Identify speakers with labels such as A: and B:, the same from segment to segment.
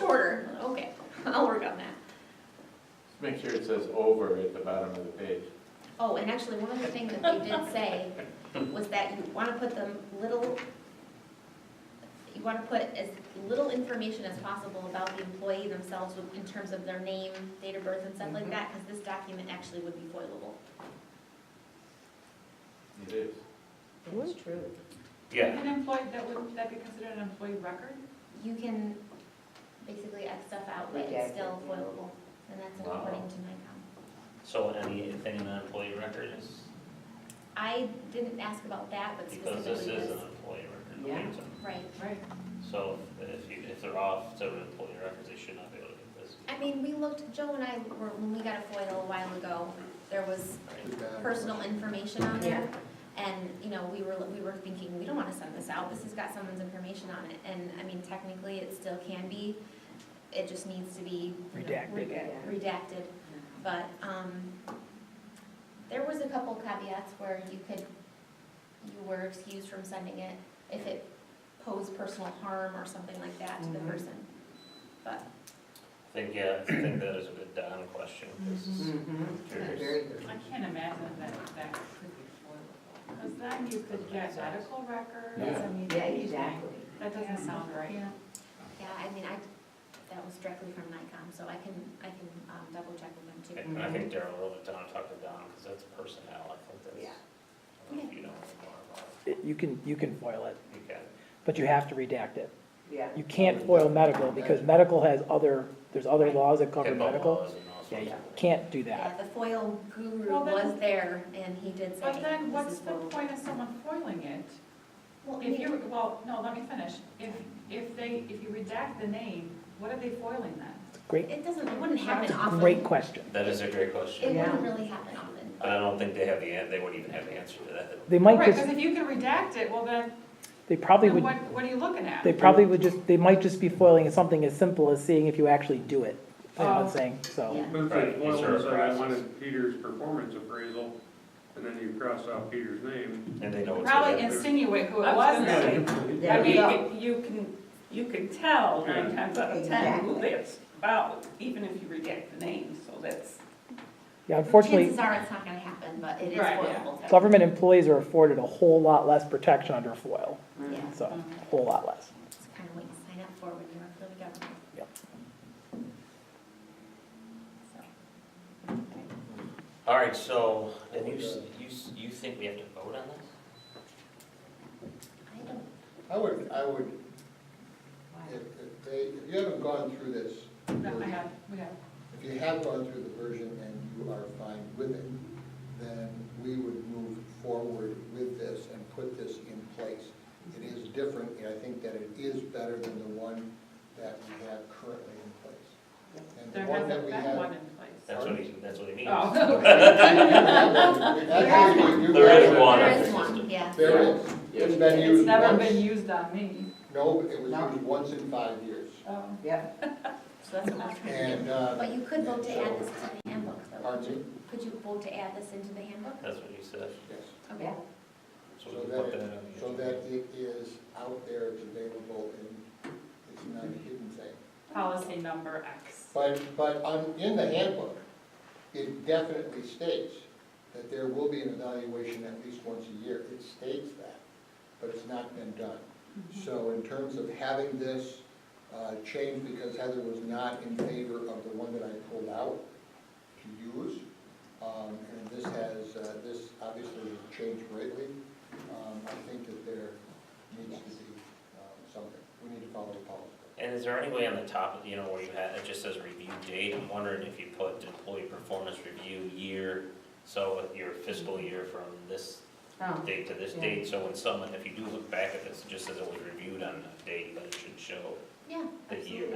A: quarter, okay, I'll work on that.
B: Make sure it says over at the bottom of the page.
A: Oh, and actually, one other thing that they did say was that you wanna put them little, you wanna put as little information as possible about the employee themselves with- in terms of their name, date of birth and stuff like
C: Mm-hmm.
B: Mhm.
A: that, cause this document actually would be foilable.
B: It is.
D: That's true.
C: Yeah,
E: An employee, that would, that be considered an employee record?
A: You can basically X stuff out, but it's
D: Redact it,
A: still
D: yeah.
A: foilable, and that's
B: Wow.
A: according to NICOM.
C: so anything in the employee record is,
A: I didn't ask about that, but
C: because this
A: specifically
C: is an
A: this,
C: employee record.
D: Yeah.
C: It's a-
A: right.
E: Right.
C: So if you, if they're off to an employee records, they should not be able to get this.
A: I mean, we looked, Joe and I were, when we got a FOIL a while ago, there was
C: right?
A: personal information on there. And, you know, we were, we were thinking, we don't wanna send this out, this has got someone's information on it, and, I mean, technically, it still can be, it just needs to be. you know, Redacted, but, um, there was a couple caveats where you could, you were excused from sending it if it posed personal harm or something like that to the
D: Mhm.
A: person. But,
C: I think, yeah, I think that is a good Don question, 'cause it's-
B: Curious.
D: Very good.
E: I can't imagine that that could be foilable. Because then you could get medical records, I mean,
D: Yeah,
E: anything.
D: exactly.
E: That doesn't sound right.
A: yeah, I mean, I, that was directly from NICOM, so I can, I can, um, double check with them too.
C: And I think Daryl wrote it down, talked to Don, because that's personnel, I think that's.
D: Yeah.
C: I don't know if you know more about
F: It- You can, you can foil it,
C: it, you can.
F: but you have to redact it.
D: Yeah.
F: You can't foil medical because medical has other, there's other laws that cover
C: HIPAA
F: medical.
C: laws and all sorts
F: Yeah,
C: of
F: you
C: things.
F: can't do
A: Yeah,
F: that.
A: the foil guru
E: Well, then-
A: was there, and he did say.
E: But then
A: this
E: what's
A: is
E: the
A: foil."
E: point of someone foiling it?
A: Well,
E: If you, well, no, let me finish. If, if they, if you redact the name, what are they foiling then?
F: Great,
A: It doesn't, it wouldn't happen often.
F: great question.
C: That is a great
A: It
C: question,
D: Yeah.
A: wouldn't really happen often.
C: but I don't think they have the, an- they wouldn't even have the answer to that.
F: They might
E: Right, because
F: just,
E: if you can redact it, well then,
F: they probably
E: then
F: would,
E: what, what are you looking at?
F: they probably would just, they might just be foiling something as simple as seeing if you actually do it, you know what I'm
E: Oh.
F: saying? So,
A: Yeah.
G: But if
C: Right,
G: it's one of them
C: it's
G: said,
C: our
G: I
C: process.
G: wanted Peter's performance appraisal, and then you cross out Peter's name.
C: And they know it's.
E: Probably
C: there.
E: insinuate who it
H: I
E: was.
H: was
E: and
H: gonna
D: There
H: I
D: you
H: mean,
D: go.
H: it- you can, you can tell nine times out of ten who
D: Exactly.
H: that's about, even if you redact the name, so that's.
F: yeah, unfortunately,
A: Chances are it's not gonna happen, but it is
H: Right,
A: foilable.
F: government employees are afforded a whole lot less protection under foil,
A: Yeah,
F: Mm-hmm. so, a whole lot less.
A: it's kind of what you sign up for when you work for the government.
F: Yep.
A: So,
C: All right, so, then you, s- you, s- you think we have to vote on this?
A: I don't,
I: I would, I would, if, if they, if you haven't gone through this,
E: No, I have, we have.
I: if you have gone through the version and you are fine with it, then we would move forward with this and put this in place. It is different, and I think that it is better than the one that we have currently in place. And
E: There
I: the one that
E: hasn't
I: we
E: been one
I: have.
E: in place.
C: That's what he, that's what he means.
E: Oh,
I: Actually, you-
C: There is one.
A: there
C: I
A: is
C: think it's
A: one,
C: the-
A: yeah.
I: There is. It's been
E: it's
I: used
E: never been
I: once,
E: used on me.
I: no, it was
D: No.
I: used once in five years.
E: Um,
D: Yeah.
A: So that's what we're trying to do.
I: And, uh.
A: But you could vote to
I: so-
A: add this to the handbook, though.
I: Pardon me?
A: Could you vote to add this into the handbook?
C: That's what he said.
I: Yes.
A: Okay.
C: So
I: So
C: we can
I: that,
C: put that
I: it-
C: on the.
I: so that
C: agenda.
I: it is out there, it's available, and it's not a hidden thing.
E: Policy number X.
I: But, but on, in the handbook, it definitely states that there will be an evaluation at least once a year. It states that, but it's not been done. So in terms of having this uh, changed, because Heather was not in favor of the one that I pulled out to use, um, and this has, uh, this obviously has changed greatly, um, I think that there needs to be um, something. We need to follow the policy.
C: And is there any way on the top, you know, where you had, it just says review date, I'm wondering if you put employee performance review year, so your fiscal year from this
D: Oh,
C: date to this
D: Yeah.
C: date, so when someone, if you do look back at this, it just says it was reviewed on that date, but it should show
A: Yeah,
C: the year.
A: absolutely.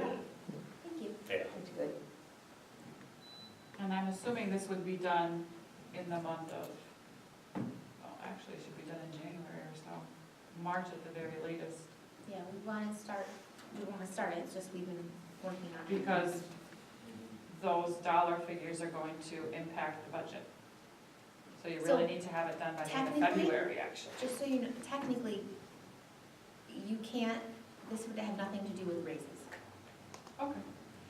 A: Thank you.
C: Yeah,
D: That's good.
E: And I'm assuming this would be done in the month of, well, actually, it should be done in January or so, March at the very latest,
A: Yeah, we wanna start, we wanna start it, it's just we've been working on it.
E: because those dollar figures are going to impact the budget. So you
A: So,
E: really need to have it done by the end of
A: technically-
E: February, actually.
A: Just so you know, technically, you can't, this would have nothing to do with raises.
E: Okay.